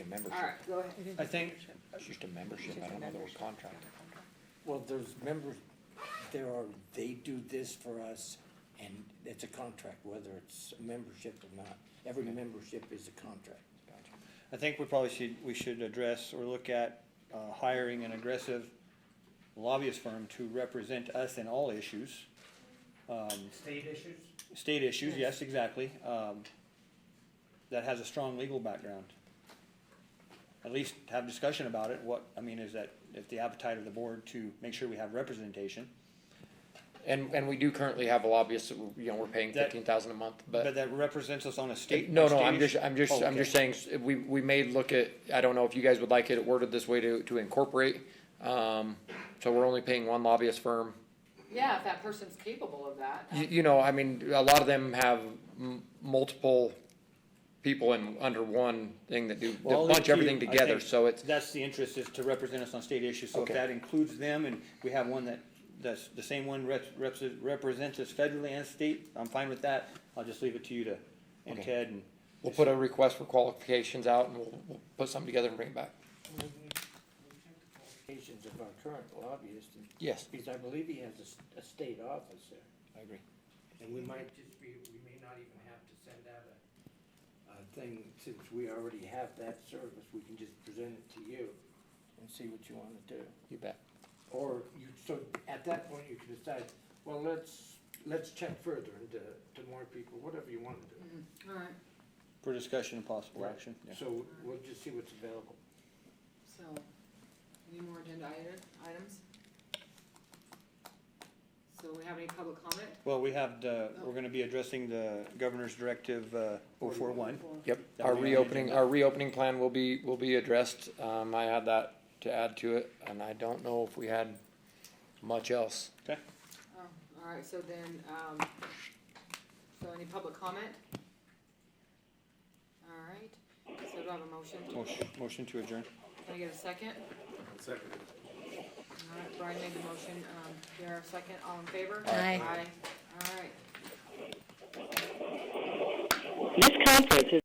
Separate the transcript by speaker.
Speaker 1: membership.
Speaker 2: All right, go ahead.
Speaker 3: I think,
Speaker 1: It's just a membership, I don't know that we're contracted.
Speaker 3: well, there's members, there are, they do this for us, and it's a contract, whether it's a membership or not. Every membership is a contract.
Speaker 1: Gotcha.
Speaker 4: I think we probably should, we should address or look at uh, hiring an aggressive lobbyist firm to represent us in all issues. Um,
Speaker 5: State issues?
Speaker 4: State issues, yes, exactly, um, that has a strong legal background. At least have discussion about it, what, I mean, is that, if the appetite of the board to make sure we have representation,
Speaker 1: And, and we do currently have a lobbyist, that we- you know, we're paying
Speaker 4: That-
Speaker 1: fifteen thousand a month,
Speaker 4: but
Speaker 1: but,
Speaker 4: that represents us on a state.
Speaker 1: no,
Speaker 4: on
Speaker 1: no,
Speaker 4: state
Speaker 1: I'm
Speaker 4: issue-
Speaker 1: just, I'm just,
Speaker 4: Oh,
Speaker 1: I'm just
Speaker 4: okay.
Speaker 1: saying, s- we, we may look at, I don't know if you guys would like it worded this way to, to incorporate. Um, so we're only paying one lobbyist firm.
Speaker 2: Yeah, if that person's capable of that.
Speaker 1: You, you know, I mean, a lot of them have m- multiple people in, under one thing that do,
Speaker 4: Well,
Speaker 1: that bunch
Speaker 4: if you-
Speaker 1: everything
Speaker 4: I
Speaker 1: together,
Speaker 4: think
Speaker 1: so it's,
Speaker 4: That's the interest, is to represent us on state issues, so if
Speaker 1: Okay.
Speaker 4: that includes them, and we have one that, that's the same one reps, reps, represents us federally and state, I'm fine with that, I'll just leave it to you to, and
Speaker 1: Okay.
Speaker 4: Ted, and
Speaker 1: we'll put a request for qualifications out and we'll, we'll put something together and bring it back.
Speaker 3: Qualifications of our current lobbyist, and-
Speaker 1: Yes,
Speaker 3: because I believe he has a s- a, state office there.
Speaker 1: I agree.
Speaker 5: And we might just be, we may not even have to send out a,
Speaker 3: A thing, since we already have that service, we can just present it to you and see what you wanna do.
Speaker 1: You bet.
Speaker 3: Or you, so at that point, you can decide, well, let's, let's check further into, to more people, whatever you wanna do.
Speaker 2: All right,
Speaker 4: for discussion and possible
Speaker 3: Right.
Speaker 4: action.
Speaker 3: So we'll just see what's available.
Speaker 2: so, any more agenda ite- items? So we have any public comment?
Speaker 4: Well, we have, the we're gonna be addressing the governor's directive, uh, oh four one.
Speaker 2: Or-
Speaker 1: Yep,
Speaker 4: That
Speaker 1: our
Speaker 4: would be on the
Speaker 1: reopening,
Speaker 4: agenda.
Speaker 1: our reopening plan will be, will be addressed, um, I had that to add to it, and I don't know if we had much else.
Speaker 2: Oh, all right, so then, um, so any public comment? All right, so do I have a motion?
Speaker 4: Motion, motion to adjourn.
Speaker 2: Can I get a second?
Speaker 5: second.
Speaker 2: All right, Brian made the motion, um, Pierre a second, all in favor?
Speaker 6: Aye.
Speaker 2: Aye, all right.
Speaker 6: This conference is